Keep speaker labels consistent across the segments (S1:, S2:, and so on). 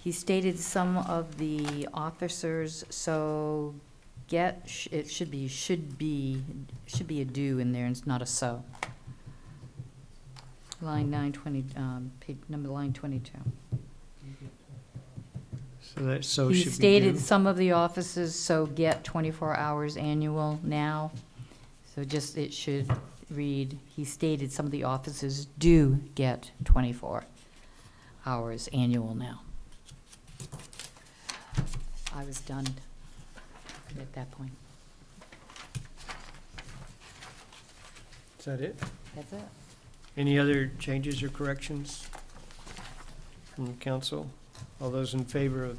S1: He stated some of the officers, so get, sh- it should be, should be, should be a do in there, and it's not a so. Line nine twenty, um, page, number line twenty-two.
S2: So that so
S1: He
S2: should be
S1: stated
S2: due.
S1: some of the offices, so get twenty-four hours annual now. So just, it should read, he stated some of the offices do get twenty-four hours annual now. I was done at that point.
S2: Is that it?
S1: That's it?
S2: Any other changes or corrections from the council? All those in favor of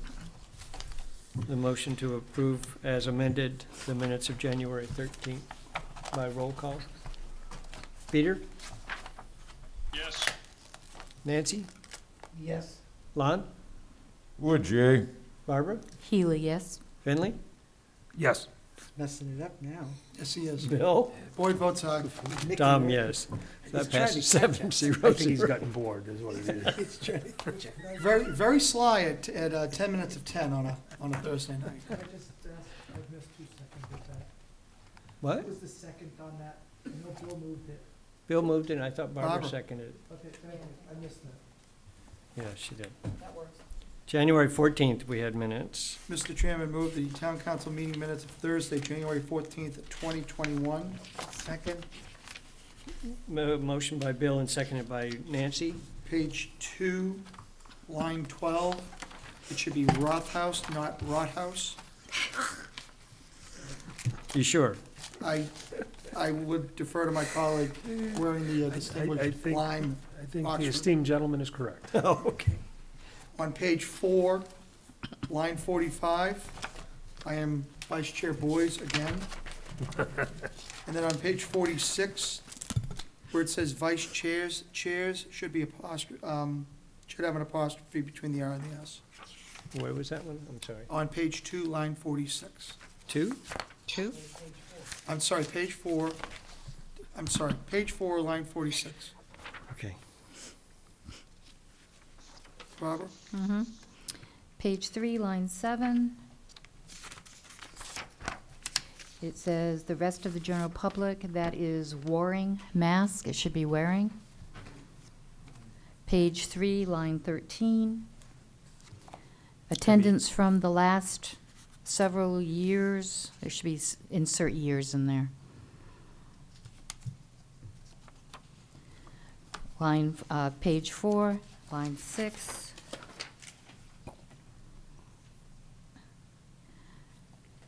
S2: the motion to approve as amended the minutes of January thirteenth by roll call? Peter?
S3: Yes.
S2: Nancy?
S4: Yes.
S2: Lon?
S5: Would you?
S2: Barbara?
S1: Healy, yes?
S2: Finley?
S5: Yes.
S4: Messing it up now.
S6: Yes, he is.
S2: Bill?
S6: Boyd votes aye.
S4: Nicky
S2: Tom,
S4: Moore.
S2: yes.
S4: He's
S2: That
S4: trying to
S2: passes
S4: catch
S2: seven zero
S7: I think he's
S2: zero.
S7: gotten bored, is what it is.
S4: He's trying to catch up.
S6: Very, very sly at, at uh, ten minutes of ten on a, on a Thursday night.
S4: Can I just ask, I missed two seconds of that.
S2: What?
S4: What was the second on that? I know Bill moved it.
S2: Bill moved and I thought Barbara
S6: Barbara.
S2: seconded it.
S4: Okay, thank you. I missed that.
S2: Yeah, she did.
S4: That works.
S2: January fourteenth, we had minutes.
S6: Mr. Chairman, move the town council meeting minutes of Thursday, January fourteenth, twenty twenty-one. Second,
S2: Mo- Motion by Bill and seconded by Nancy.
S6: page two, line twelve. It should be Rothaus, not Rothaus.
S2: You sure?
S6: I, I would defer to my colleague wearing the uh,
S7: I
S6: distinguished
S7: think-
S6: lime
S7: I think
S6: Oxford.
S7: the esteemed gentleman is correct.
S2: Oh, okay.
S6: On page four, line forty-five, I am Vice Chair Boys again. And then on page forty-six, where it says Vice Chairs, Chairs should be apostrophe, um, should have an apostrophe between the R and the S.
S2: Where was that one? I'm sorry.
S6: On page two, line forty-six.
S2: Two?
S1: Two.
S6: I'm sorry, page four, I'm sorry, page four, line forty-six.
S2: Okay.
S6: Barbara?
S1: Mm-hmm. Page three, line seven. It says, "The rest of the general public that is wearing mask, it should be wearing." Page three, line thirteen. Attendance from the last several years, there should be, s- insert years in there. Line, f- uh, page four, line six.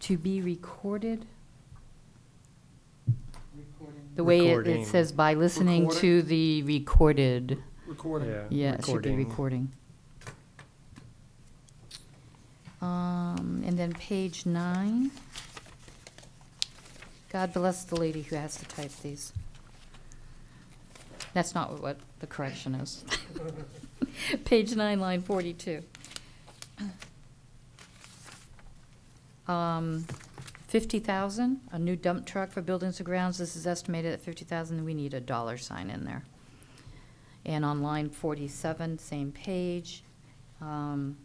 S1: To be recorded,
S4: Recording.
S1: the way it-
S2: Recording.
S1: it says by listening
S6: Recorded.
S1: to the recorded,
S6: Recording.
S1: yeah, it should be recording. Um, and then page nine. God bless the lady who has to type these. That's not what the correction is. Page nine, line forty-two. Um, fifty thousand, a new dump truck for buildings and grounds, this is estimated at fifty thousand, we need a dollar sign in there. And on line forty-seven, same page, um,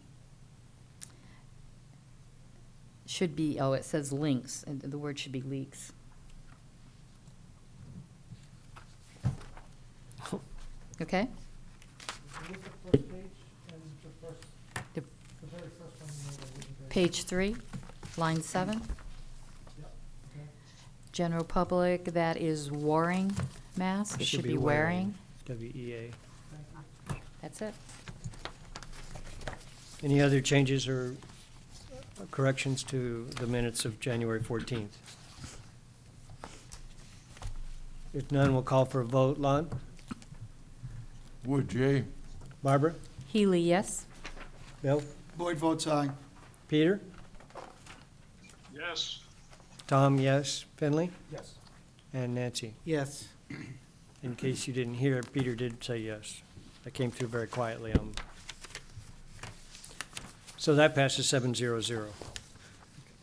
S1: should be, oh, it says links, and the word should be leaks. Okay?
S4: What was the first page and the first,
S1: The-
S4: the very first one? you made, I wasn't there.
S1: Page three, line seven.
S4: Okay.
S1: General public that is wearing masks, should be wearing.
S2: WEA.
S4: Thank you.
S1: That's it.
S2: Any other changes or uh, corrections to the minutes of January fourteenth? If none, we'll call for a vote. Lon?
S5: Would you?
S2: Barbara?
S1: Healy, yes?
S2: Bill?
S6: Boyd votes aye.
S2: Peter?
S3: Yes.
S2: Tom, yes. Finley?
S4: Yes.
S2: And Nancy?
S4: Yes.
S2: In case you didn't hear, Peter did say yes. I came through very quietly. um. So that passes seven zero zero.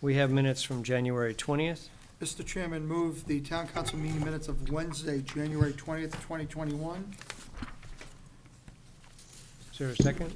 S2: We have minutes from January twentieth.
S6: Mr. Chairman, move the town council meeting minutes of Wednesday, January twentieth, twenty twenty-one.
S2: Is there a second?